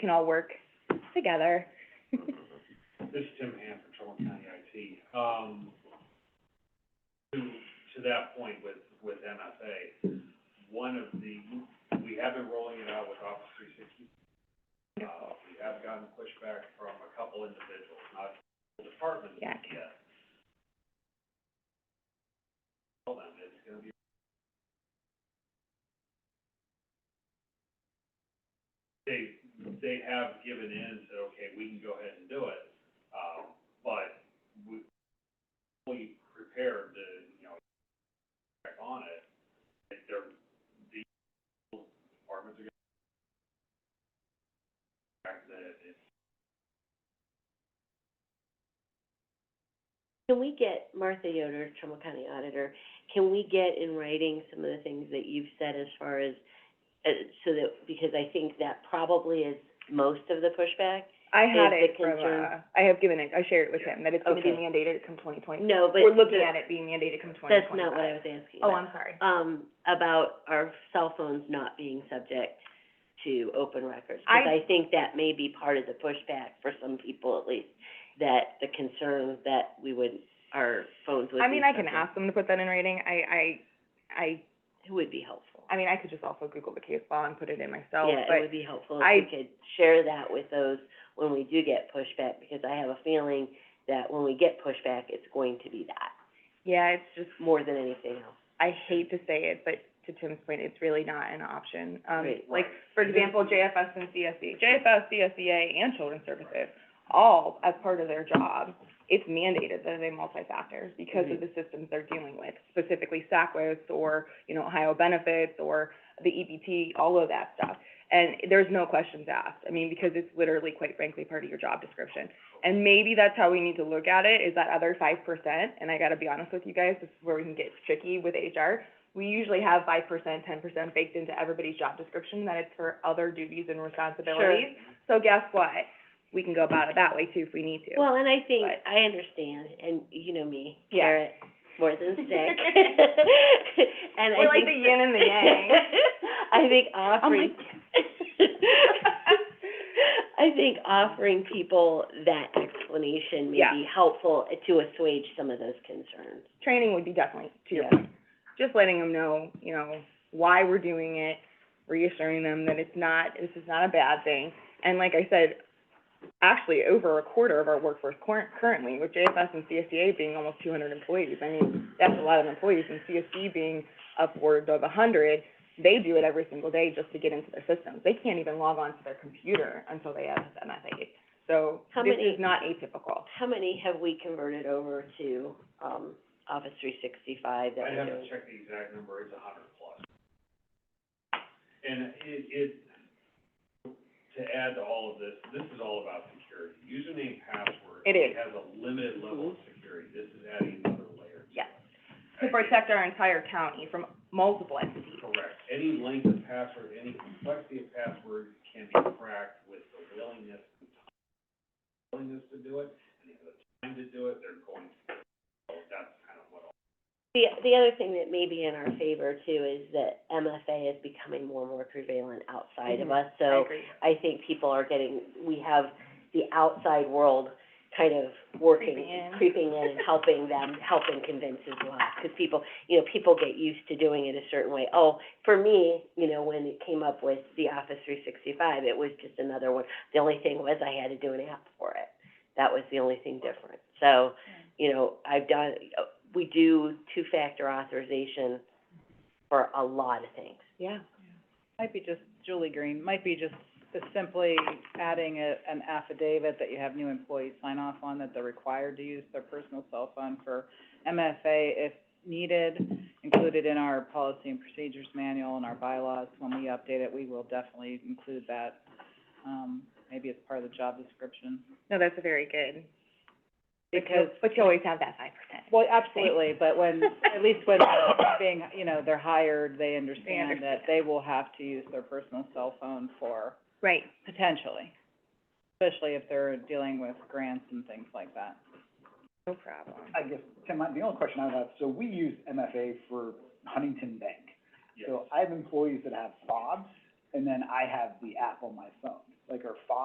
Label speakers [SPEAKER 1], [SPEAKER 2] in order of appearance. [SPEAKER 1] can all work together.
[SPEAKER 2] This is Tim Ham, Trumbull County IT. Um, to, to that point with, with MFA, one of the, we have been rolling it out with Office three sixty. Uh, we have gotten pushback from a couple individuals, not the department
[SPEAKER 1] Yeah.
[SPEAKER 2] yet. Hold on, it's gonna be. They, they have given in and said, okay, we can go ahead and do it, um, but we, we prepared to, you know, check on it. Like, They're, the departments are gonna check that it's
[SPEAKER 3] Can we get, Martha Yoder, Trumbull County Auditor, can we get in writing some of the things that you've said as far as, uh, so that, because I think that probably is most of the pushback?
[SPEAKER 1] I had
[SPEAKER 3] Is the
[SPEAKER 1] it from, uh,
[SPEAKER 3] concern-
[SPEAKER 1] I have given it, I shared it with him, that it's gonna be
[SPEAKER 3] Okay.
[SPEAKER 1] mandated come twenty twenty.
[SPEAKER 3] No, but
[SPEAKER 1] We're looking
[SPEAKER 3] the-
[SPEAKER 1] at it being mandated come twenty twenty-five.
[SPEAKER 3] That's not what I was asking
[SPEAKER 1] Oh,
[SPEAKER 3] about.
[SPEAKER 1] I'm sorry.
[SPEAKER 3] Um, about our cell phones not being subject to open records.
[SPEAKER 1] I-
[SPEAKER 3] Because I think that may be part of the pushback for some people at least, that the concern that we would, our phones would be
[SPEAKER 1] I mean, I can
[SPEAKER 3] subject-
[SPEAKER 1] ask them to put that in writing, I, I, I,
[SPEAKER 3] It would be helpful.
[SPEAKER 1] I mean, I could just also Google the case law and put it in myself,
[SPEAKER 3] Yeah, it
[SPEAKER 1] but,
[SPEAKER 3] would be helpful
[SPEAKER 1] I-
[SPEAKER 3] if we could share that with those when we do get pushback, because I have a feeling that when we get pushback, it's going to be that,
[SPEAKER 1] yeah, it's just,
[SPEAKER 3] more than anything else.
[SPEAKER 1] I hate to say it, but to Tim's point, it's really not an option. Um,
[SPEAKER 3] Right.
[SPEAKER 1] like,
[SPEAKER 2] Right.
[SPEAKER 1] for
[SPEAKER 2] And
[SPEAKER 1] example, JFS and E. CSE, JFS, CSEA, and Children's Services, all, as part of their job, it's mandated that they multi-factor because of
[SPEAKER 3] Mhm.
[SPEAKER 1] the systems they're dealing with, specifically SACWIS or, you know, Ohio Benefits or the EBT, all of that stuff. And there's no questions asked, I mean, because it's literally, quite frankly, part of your job description. And maybe that's how we need to look at it, is that other five percent, and I gotta be honest with you guys, this is where we can get tricky with HR. We usually have five percent, ten percent baked into everybody's job description, that it's for other duties and responsibilities. So guess what? We can go about it that way too if we need to.
[SPEAKER 3] Well, and I think,
[SPEAKER 1] But-
[SPEAKER 3] I understand, and you know me,
[SPEAKER 1] Yeah.
[SPEAKER 3] carrot, more than stick. And I
[SPEAKER 1] We're like
[SPEAKER 3] think
[SPEAKER 1] the
[SPEAKER 3] that-
[SPEAKER 1] yin and the yang.
[SPEAKER 3] I think
[SPEAKER 1] Oh my
[SPEAKER 3] offering, I think offering people that explanation may
[SPEAKER 1] Yeah.
[SPEAKER 3] be helpful to assuage some of those concerns.
[SPEAKER 1] Training would be definitely, to your
[SPEAKER 3] Yeah.
[SPEAKER 1] point. Just letting them know, you know, why we're doing it, reassuring them that it's not, this is not a bad thing. And like I said, actually, over a quarter of our workforce cor- currently, with JFS and CSEA being almost two hundred employees, I mean, that's a lot of employees, and CSE being upwards of a hundred, they do it every single day just to get into their systems. They can't even log on to their computer until they have MFA. So
[SPEAKER 3] How
[SPEAKER 1] this
[SPEAKER 3] many-
[SPEAKER 1] is not atypical.
[SPEAKER 3] How many have we converted over to, um, Office three sixty-five that
[SPEAKER 2] I
[SPEAKER 3] we're
[SPEAKER 2] haven't
[SPEAKER 3] doing?
[SPEAKER 2] checked the exact number, it's a hundred plus. And it, it, to add to all of this, this is all about security. Username, password.
[SPEAKER 1] It is. Mm-hmm.
[SPEAKER 2] Has a limited level of security, this is adding another layer to it.
[SPEAKER 1] Yeah. To protect our entire county from multiple entities.
[SPEAKER 2] Correct. Any length of password, any complexity of password can be cracked with the willingness, willingness to do it, and the time to do it, they're going to. So that's kind of what all.
[SPEAKER 3] The, the other thing that may be in our favor too is that MFA is becoming more and more prevalent outside of
[SPEAKER 1] Mhm.
[SPEAKER 3] us, so. I think people are getting, we have the outside world kind of working,
[SPEAKER 1] Creeping in.
[SPEAKER 3] creeping in and helping them, helping convince as well. Because people, you know, people get used to doing it a certain way. Oh, for me, you know, when it came up with the Office three sixty-five, it was just another one. The only thing was I had to do an app for it. That was the only thing different. So, you know, I've done, we do two-factor authorization for a lot of things.
[SPEAKER 1] Yeah.
[SPEAKER 4] Might be just, Julie Green, might be just simply adding a, an affidavit that you have new employees sign off on that they're required to use their personal cell phone for MFA if needed, included in our policy and procedures manual and our bylaws. When we update it, we will definitely include that, um, maybe as part of the job description.
[SPEAKER 1] No, that's a very good. but you-
[SPEAKER 4] Because
[SPEAKER 1] But you always have that five percent.
[SPEAKER 4] Well, absolutely, but when, at least when they're being, you know, they're hired, they understand that they will have to use their personal cell phone for,
[SPEAKER 1] Right.
[SPEAKER 4] potentially, especially if they're dealing with grants and things like that.
[SPEAKER 1] No problem.
[SPEAKER 5] I guess, Tim, my- the only question I have, so we use MFA for Huntington Bank.
[SPEAKER 2] Yes.
[SPEAKER 5] So I have employees that have fobs, and then I have the app on my phone. So
[SPEAKER 4] like our five